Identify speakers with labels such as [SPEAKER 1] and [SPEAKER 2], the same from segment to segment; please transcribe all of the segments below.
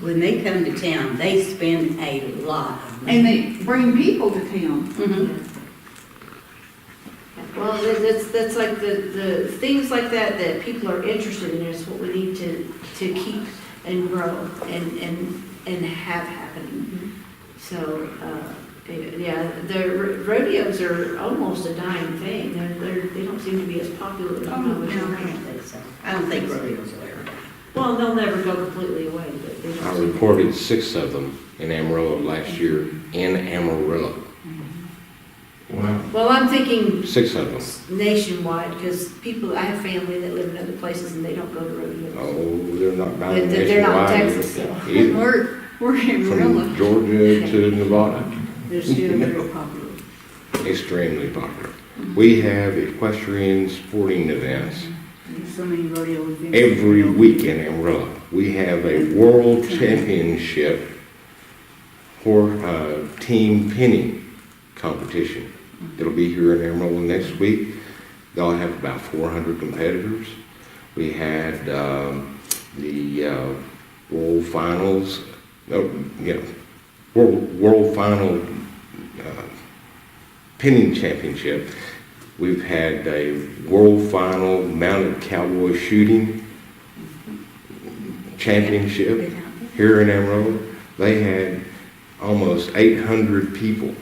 [SPEAKER 1] When they come to town, they spend a lot of money.
[SPEAKER 2] And they bring people to town.
[SPEAKER 1] Mhm.
[SPEAKER 3] Mm-hmm. Well, that- that's, that's like the, the things like that, that people are interested in is what we need to, to keep and grow and, and, and have happening. So, uh, yeah, the rodeos are almost a dying thing. They're, they're, they don't seem to be as popular. as
[SPEAKER 1] Oh,
[SPEAKER 3] when I
[SPEAKER 1] no,
[SPEAKER 3] was
[SPEAKER 1] I
[SPEAKER 3] younger.
[SPEAKER 1] don't think so. I don't think rodeos will ever.
[SPEAKER 3] Well, they'll never go completely away, but they
[SPEAKER 4] I
[SPEAKER 3] don't.
[SPEAKER 4] reported six of them in Amarillo last year, in Amarillo,
[SPEAKER 5] Wow.
[SPEAKER 3] Well, I'm thinking
[SPEAKER 4] six of them.
[SPEAKER 3] nationwide, because people, I have family that live in other places and they don't go to rodeos.
[SPEAKER 4] Oh, they're not
[SPEAKER 3] They're-
[SPEAKER 4] buying
[SPEAKER 3] they're not
[SPEAKER 4] nationwide
[SPEAKER 3] Texas, so.
[SPEAKER 4] either,
[SPEAKER 2] We're, we're in
[SPEAKER 4] from
[SPEAKER 2] Amarillo.
[SPEAKER 4] Georgia to Nevada,
[SPEAKER 3] They're still very popular.
[SPEAKER 4] extremely popular. We have equestrian sporting events
[SPEAKER 2] There's so many rodeo events.
[SPEAKER 4] every week in Amarillo. We have a world championship for uh, team pinning competition. It'll be here in Amarillo next week. They'll have about 400 competitors. We had um, the uh, world finals, no, you know, world, world final uh, pinning championship. We've had a world final mounted cowboy shooting championship here in Amarillo. They had almost 800 people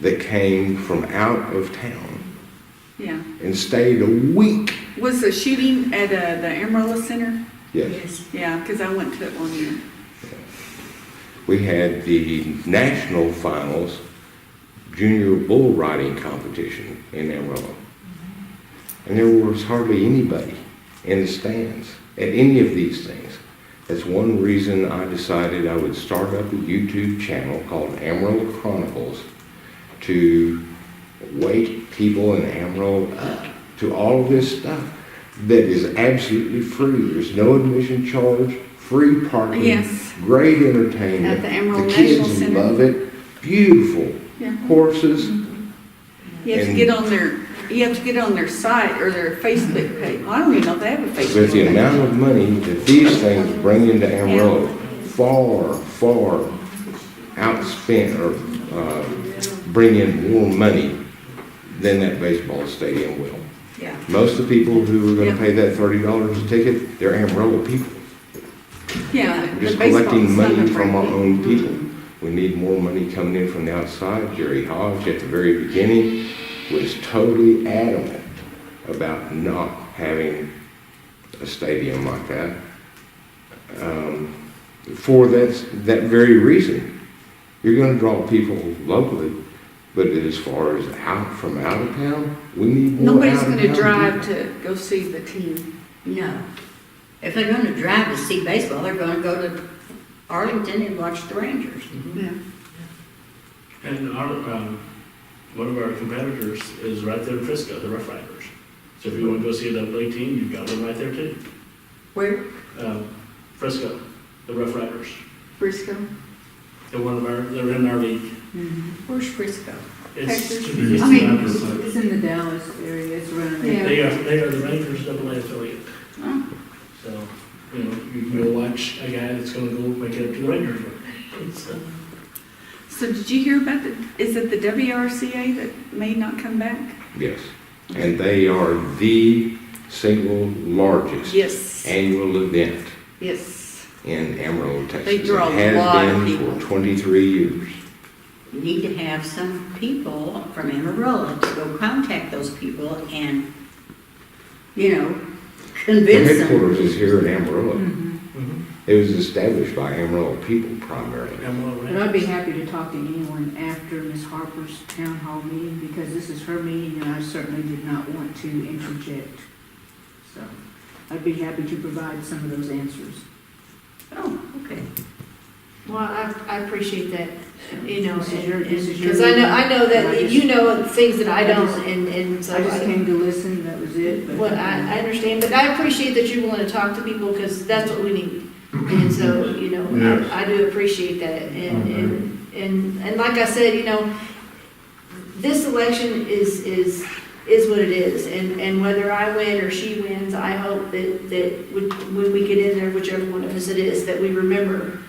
[SPEAKER 4] that came from out of town
[SPEAKER 2] Yeah.
[SPEAKER 4] and stayed a week.
[SPEAKER 2] Was the shooting at uh, the Amarillo Center?
[SPEAKER 4] Yes.
[SPEAKER 2] Yeah, because I went to it one year.
[SPEAKER 4] We had the national finals junior bull riding competition in Amarillo. And there was hardly anybody in the stands at any of these things. That's one reason I decided I would start up a YouTube channel called Amarillo Chronicles to wake people in Amarillo up to all of this stuff that is absolutely free. There's no admission charge, free parking,
[SPEAKER 2] Yes.
[SPEAKER 4] great entertainment.
[SPEAKER 2] At the Amarillo National
[SPEAKER 4] kids
[SPEAKER 2] Center.
[SPEAKER 4] love it. Beautiful
[SPEAKER 2] Yeah.
[SPEAKER 4] horses.
[SPEAKER 2] You have to
[SPEAKER 4] And-
[SPEAKER 2] get on their, you have to get on their site or their Facebook page. Well, I don't even know if they have a
[SPEAKER 4] But
[SPEAKER 2] Facebook
[SPEAKER 4] the
[SPEAKER 2] page.
[SPEAKER 4] amount of money that these things bring into Amarillo far, far outspent or uh, bring in more money than that baseball stadium will.
[SPEAKER 2] Yeah.
[SPEAKER 4] Most of the people who are going
[SPEAKER 2] Yeah.
[SPEAKER 4] to pay that thirty dollars a ticket, they're Amarillo people.
[SPEAKER 2] Yeah.
[SPEAKER 4] We're
[SPEAKER 2] the
[SPEAKER 4] just
[SPEAKER 2] baseball
[SPEAKER 4] collecting
[SPEAKER 2] is not
[SPEAKER 4] money
[SPEAKER 2] a
[SPEAKER 4] from our
[SPEAKER 2] brand.
[SPEAKER 4] own people. We need more money coming in from the outside. Jerry Hodge, at the very beginning, was totally adamant about not having a stadium like that. um, For that, that very reason. You're gonna draw people locally, but as far as out, from out of town, we need more
[SPEAKER 2] Nobody's
[SPEAKER 4] out of
[SPEAKER 2] gonna
[SPEAKER 4] town
[SPEAKER 2] drive
[SPEAKER 4] people.
[SPEAKER 2] to go see the team.
[SPEAKER 1] No. If they're gonna drive to see baseball, they're gonna go to Arlington and watch the Rangers.
[SPEAKER 2] Yeah.
[SPEAKER 5] And our, um, one of our competitors is right there in Frisco, the Rough Riders. So if you want to go see a double A team, you've got one right there too.
[SPEAKER 1] Where?
[SPEAKER 5] Um, Frisco, the Rough Riders.
[SPEAKER 2] Briscoe.
[SPEAKER 5] They're one of our, they're in our league.
[SPEAKER 6] Mm-hmm.
[SPEAKER 1] Where's Frisco?
[SPEAKER 5] It's,
[SPEAKER 2] Texas.
[SPEAKER 5] it's
[SPEAKER 6] I mean,
[SPEAKER 5] not the-
[SPEAKER 6] it's in the Dallas area, it's around
[SPEAKER 2] Yeah.
[SPEAKER 6] there.
[SPEAKER 5] they are, they are the Rangers double A affiliate.
[SPEAKER 2] Oh.
[SPEAKER 5] So, you know, you can go watch a guy that's gonna go make it up to the Rangers. So,
[SPEAKER 2] So did you hear about the, is it the WRCA that may not come back?
[SPEAKER 4] Yes, and they are the single largest
[SPEAKER 2] Yes,
[SPEAKER 4] annual event
[SPEAKER 2] yes.
[SPEAKER 4] in Amarillo, Texas.
[SPEAKER 2] They draw a
[SPEAKER 4] It has
[SPEAKER 2] lot of
[SPEAKER 4] been
[SPEAKER 2] people.
[SPEAKER 4] For 23 years.
[SPEAKER 1] You need to have some people from Amarillo to go contact those people and, you know,
[SPEAKER 4] The
[SPEAKER 1] convince them.
[SPEAKER 4] headquarters is here in
[SPEAKER 2] Hmm.
[SPEAKER 4] Amarillo.
[SPEAKER 6] Mm-hmm.
[SPEAKER 5] mhm.
[SPEAKER 4] It was established by Amarillo people primarily.
[SPEAKER 5] I'm all right.
[SPEAKER 6] But I'd be happy to talk to anyone after Ms. Harper's town hall meeting, because this is her meeting, and I certainly did not want to interject. So, I'd be happy to provide some of those answers.
[SPEAKER 1] Oh, okay.
[SPEAKER 3] Well, I, I appreciate that, you know,
[SPEAKER 6] This is your- this is your
[SPEAKER 3] because I know, I know
[SPEAKER 6] meeting, and I
[SPEAKER 3] that
[SPEAKER 6] just-
[SPEAKER 3] you know things that I
[SPEAKER 6] I
[SPEAKER 3] don't,
[SPEAKER 6] just-
[SPEAKER 3] and, and so
[SPEAKER 6] I just
[SPEAKER 3] I,
[SPEAKER 6] came to listen, that was it, but.
[SPEAKER 3] what I, I understand, but I appreciate that you're willing to talk to people, because that's what we need. And so, you know,
[SPEAKER 5] Yes.
[SPEAKER 3] I, I do appreciate that, and, and, and, and like I said, you know, this election is, is, is what it is, and, and whether I win or she wins, I hope that, that when when we get in there, whichever one of us it is, that we remember